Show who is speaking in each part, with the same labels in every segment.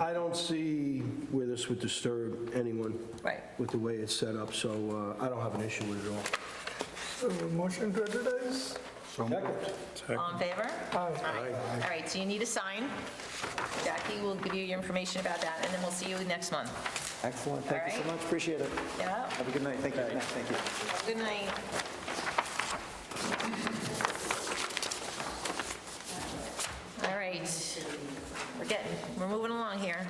Speaker 1: I don't see where this would disturb anyone.
Speaker 2: Right.
Speaker 1: With the way it's set up, so uh, I don't have an issue with it at all.
Speaker 3: So motion to advertise?
Speaker 2: All in favor? Aye. All right, so you need a sign. Jackie will give you your information about that, and then we'll see you next month.
Speaker 4: Excellent, thank you so
Speaker 2: All right.
Speaker 4: much, appreciate it.
Speaker 2: Yeah?
Speaker 4: Have a good night, thank you, Matt. thank you.
Speaker 2: Good night. All right, we're getting, we're moving along here.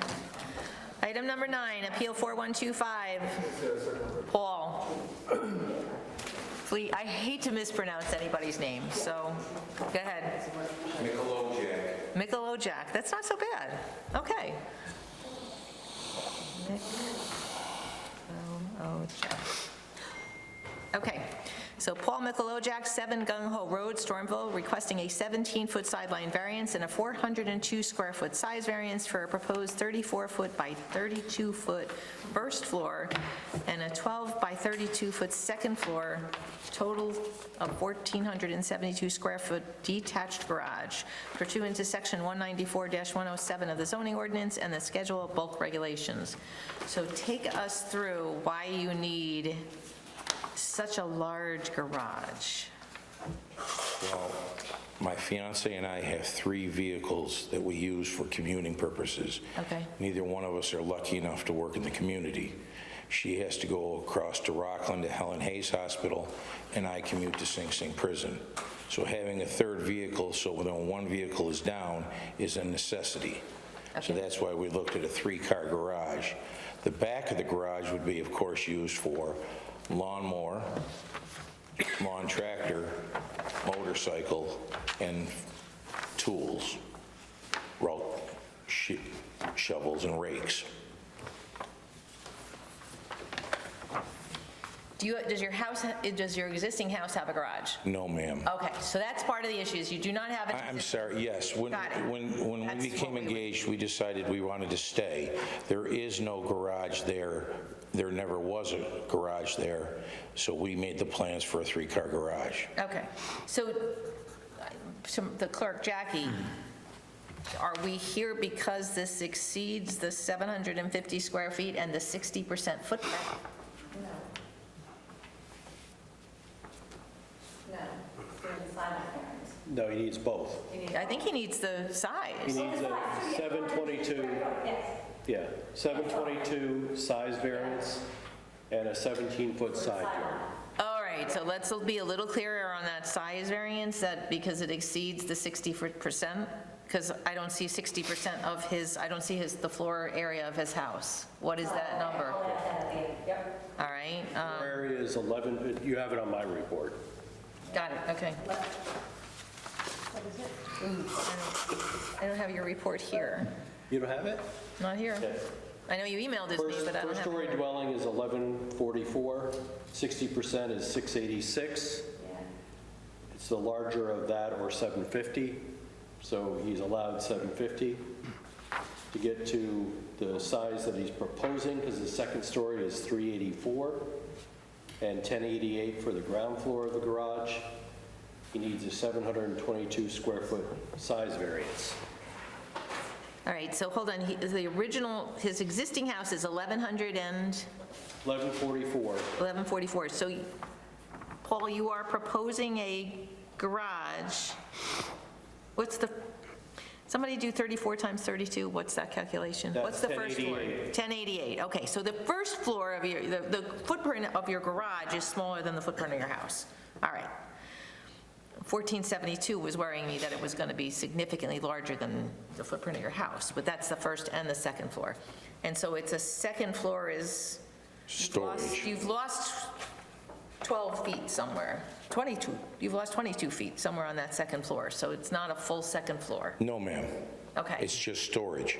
Speaker 2: Item number nine, Appeal 4125, Paul. Please, I hate to mispronounce anybody's name, so go ahead. Michelojak, that's not so bad. Okay. Michelojak. Okay, so Paul Michelojak, 7 Gung Ho Road, Stormville, requesting a 17-foot sideline variance and a 402-square-foot size variance for a proposed 34-foot by 32-foot first floor and a 12 by 32-foot second floor, total of 1,472-square-foot detached garage pursuant to Section 194-107 of the zoning ordinance and the Schedule of Bulk Regulations. So take us through why you need such a large garage.
Speaker 5: Well, my fiance and I have three vehicles that we use for commuting purposes.
Speaker 2: Okay.
Speaker 5: Neither one of us are lucky enough to work in the community. She has to go across to Rockland to Helen Hayes Hospital, and I commute to Sing Sing Prison. So having a third vehicle, so when one vehicle is down, is a necessity. So that's why we looked at a three-car garage. The back of the garage would be, of course, used for lawnmower, lawn tractor, motorcycle, and tools, route she- shovels and rakes.
Speaker 2: Do you, does your house, ha- does your existing house have a garage?
Speaker 5: No, ma'am.
Speaker 2: Okay, so that's part of the issue, is you do not have
Speaker 5: I-
Speaker 2: a...
Speaker 5: I'm sorry, yes. When,
Speaker 2: Got it.
Speaker 5: when, when
Speaker 2: That's
Speaker 5: we became
Speaker 2: what we were-
Speaker 5: engaged, we decided we wanted to stay. There is no garage there. There never was a garage there, so we made the plans for a three-car garage.
Speaker 2: Okay, so, uh, so the clerk, Jackie, are we here because this exceeds the 750 square feet and the 60% footprint?
Speaker 6: No, he needs both.
Speaker 2: I think he needs the
Speaker 6: He
Speaker 2: size.
Speaker 6: needs a 722, yeah, 722 size variance and a 17-foot side yard.
Speaker 2: All right, so let's be a little clearer on that size variance, that because it exceeds the 60%, because I don't see 60% of his, I don't see his, the floor area of his house. What is that number? All right, um,
Speaker 6: Our area is 11, you have it on my report.
Speaker 2: got it, okay. Ooh, I don't- I don't have your report here,
Speaker 6: You don't have it?
Speaker 2: not here.
Speaker 6: Okay.
Speaker 2: I know you emailed it to me,
Speaker 6: First-
Speaker 2: but I don't have it
Speaker 6: First-story
Speaker 2: here.
Speaker 6: dwelling is 1144, 60% is 686. It's the larger of that or 750, so he's allowed 750. To get to the size that he's proposing, because the second story is 384 and 1088 for the ground floor of the garage, he needs a 722-square-foot size variance.
Speaker 2: All right, so hold on, he- the original, his existing house is 1,100 and...
Speaker 6: 1144
Speaker 2: 1144. So, Paul, you are proposing a garage. What's the, somebody do 34 times 32, what's that calculation?
Speaker 6: That's
Speaker 2: What's the first floor? 1088, okay. So the first floor of your, the the footprint of your garage is smaller than the footprint of your house. All right. 1472 was worrying me that it was going to be significantly larger than the footprint of your house, but that's the first and the second floor. And so it's a second floor is you've lost-
Speaker 5: Storage.
Speaker 2: You've lost 12 feet somewhere, 22, you've lost 22 feet somewhere on that second floor, so it's not a full second floor.
Speaker 5: No, ma'am.
Speaker 2: Okay,
Speaker 5: It's just storage.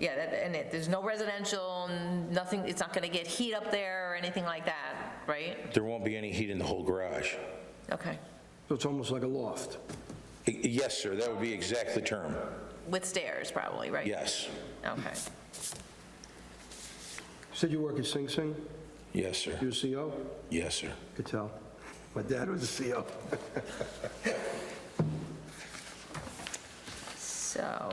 Speaker 2: yeah, that- and it, there's no residential, n- nothing, it's not going to get heat up there or anything like that, right?
Speaker 5: There won't be any heat in the whole garage.
Speaker 2: Okay,
Speaker 1: So it's almost like a loft.
Speaker 5: Y- Yes, sir, that would be exactly the term.
Speaker 2: with stairs probably, right?
Speaker 5: Yes.
Speaker 2: Okay,
Speaker 1: You Said you work at Sing Sing?
Speaker 5: Yes, sir.
Speaker 1: You're a CO?
Speaker 5: Yes, sir.
Speaker 1: Could tell. My dad was E a CO.
Speaker 2: so,